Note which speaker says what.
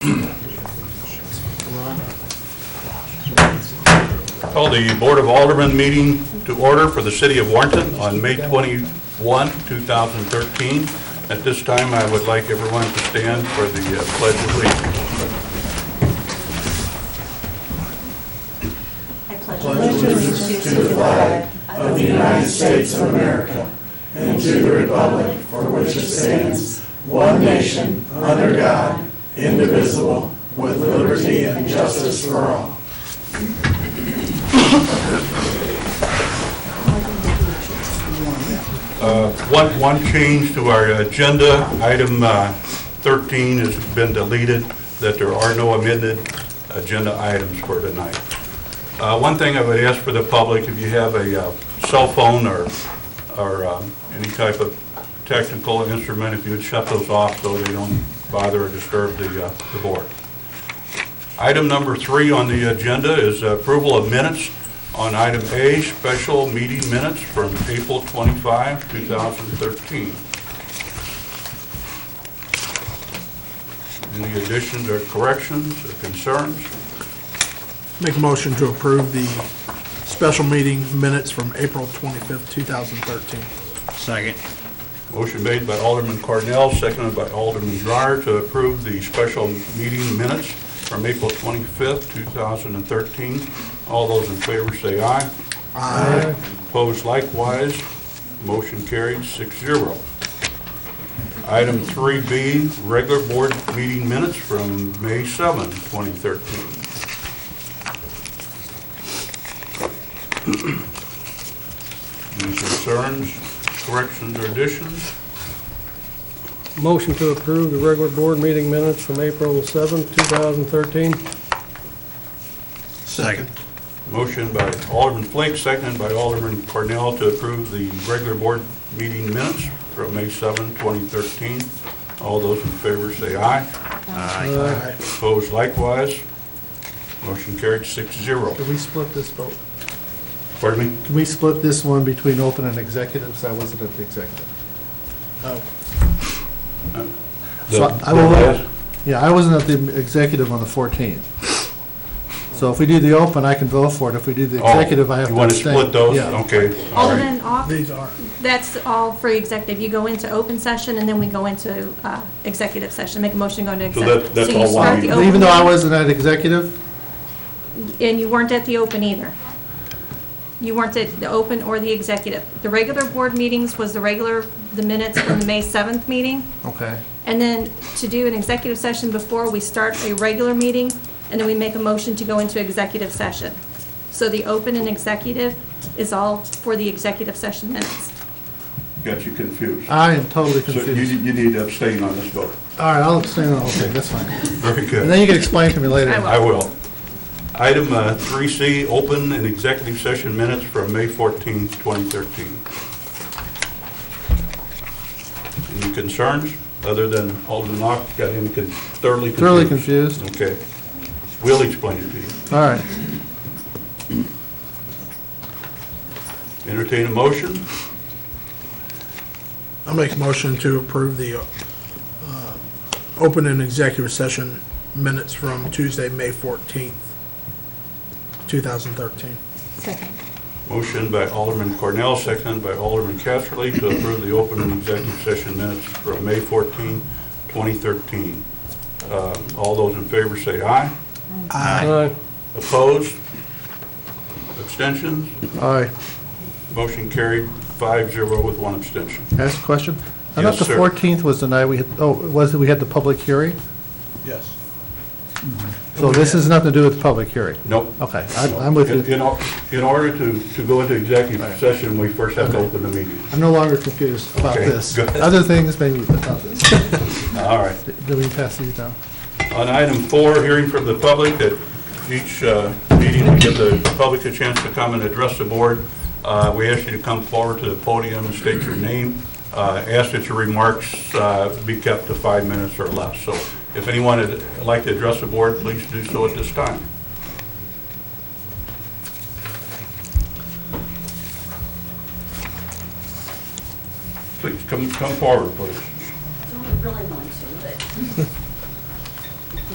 Speaker 1: I call the Board of Aldermen meeting to order for the city of Warrenton on May 21, 2013. At this time, I would like everyone to stand for the uh, pledge of allegiance.
Speaker 2: I pledge allegiance to the flag of the United States of America and to the republic for which it stands, one nation, under God, indivisible, with liberty and justice for all.
Speaker 1: One, one change to our agenda, item uh, 13 has been deleted, that there are no amended agenda items for tonight. Uh, One thing I would ask for the public, if you have a uh, cell phone or, or um, any type of technical instrument, if you would shut those off so they don't bother or disturb the, uh, the board. Item number three on the agenda is approval of minutes on item A, special meeting minutes from April 25, 2013. Any additions or corrections or concerns?
Speaker 3: Make a motion to approve the special meeting minutes from April 25th, 2013.
Speaker 4: Second.
Speaker 1: Motion made by Alderman Cornell, seconded by Alderman Dreyer to approve the special meeting minutes from April 25th, 2013. All those in favor say aye. Aye. Opposed likewise. Motion carried 6-0. Item 3B, regular board meeting minutes from May 7, 2013. Any concerns, corrections, or additions?
Speaker 5: Motion to approve the regular board meeting minutes from April seventh, 2013.
Speaker 4: Second.
Speaker 1: Motion by Alderman Flake, seconded by Alderman Cornell to approve the regular board meeting minutes from May 7, 2013. All those in favor say aye.
Speaker 4: Aye.
Speaker 1: Opposed likewise. Motion carried 6-0.
Speaker 6: Can we split this vote?
Speaker 1: Pardon me?
Speaker 6: Can we split this one between open and executives? I wasn't at the executive.
Speaker 3: Oh,
Speaker 6: So I will vote. Yeah, I wasn't at the executive on the 14th. So if we do the open, I can vote for it. If we do the
Speaker 1: Oh,
Speaker 6: executive, I have to
Speaker 1: You want to
Speaker 6: abstain.
Speaker 1: split those? Oh,
Speaker 6: Yeah.
Speaker 1: Okay, all right.
Speaker 2: Alderman Ock,
Speaker 3: These are,
Speaker 2: that's all for executive. You go into open session and then we go into uh, executive session, make a motion to go into
Speaker 1: So that-
Speaker 2: executive.
Speaker 1: that's all one meeting.
Speaker 6: Even though I wasn't at executive,
Speaker 2: And you weren't at the open either. You weren't at the open or the executive. The regular board meetings was the regular, the minutes from the May 7th meeting.
Speaker 6: okay.
Speaker 2: And then to do an executive session before we start a regular meeting, and then we make a motion to go into executive session. So the open and executive is all for the executive session minutes.
Speaker 1: Got you confused.
Speaker 6: I am totally
Speaker 1: So you,
Speaker 6: confused.
Speaker 1: you need to abstain on this vote.
Speaker 6: All right, I'll abstain on the whole thing, that's fine.
Speaker 1: Very good.
Speaker 6: And then you can explain to me later.
Speaker 2: I will.
Speaker 1: I will. Item uh, 3C, open and executive session minutes from May 14, 2013. Any concerns, other than Alderman Ock got him con- thoroughly confused?
Speaker 6: Thoroughly confused.
Speaker 1: Okay. We'll explain it to you.
Speaker 6: All right.
Speaker 1: Entertain a motion?
Speaker 3: I'll make a motion to approve the uh, open and executive session minutes from Tuesday, May 14th, 2013.
Speaker 1: Motion by Alderman Cornell, seconded by Alderman Casterly to approve the open and executive session minutes from May 14, 2013. Um, All those in favor say aye.
Speaker 5: Aye.
Speaker 1: Opposed? Abstentions?
Speaker 6: All right.
Speaker 1: Motion carried 5-0 with one abstention.
Speaker 6: Ask a question? I
Speaker 1: Yes,
Speaker 6: thought the
Speaker 1: sir.
Speaker 6: 14th was the night we had, oh, was it, we had the public hearing?
Speaker 3: Yes.
Speaker 1: Oh,
Speaker 6: So this has nothing to do with the public hearing?
Speaker 1: Nope.
Speaker 6: Okay, I'm Oh, I'm with
Speaker 1: In-
Speaker 6: you.
Speaker 1: In, or- in order to, to go into executive session, we first have to open the meeting.
Speaker 6: I'm no longer confused about
Speaker 1: Okay,
Speaker 6: this.
Speaker 1: good.
Speaker 6: Other things, maybe about this.
Speaker 1: All right.
Speaker 6: Do we pass these down?
Speaker 1: On item four, hearing from the public, at each uh, meeting, we give the public a chance to come and address the board. Uh, We ask you to come forward to the podium and state your name. Uh, Ask that your remarks uh, be kept to five minutes or less. So if anyone would like to address the board, please do so at this time. Please, come, come forward, please.
Speaker 7: Don't really want to, but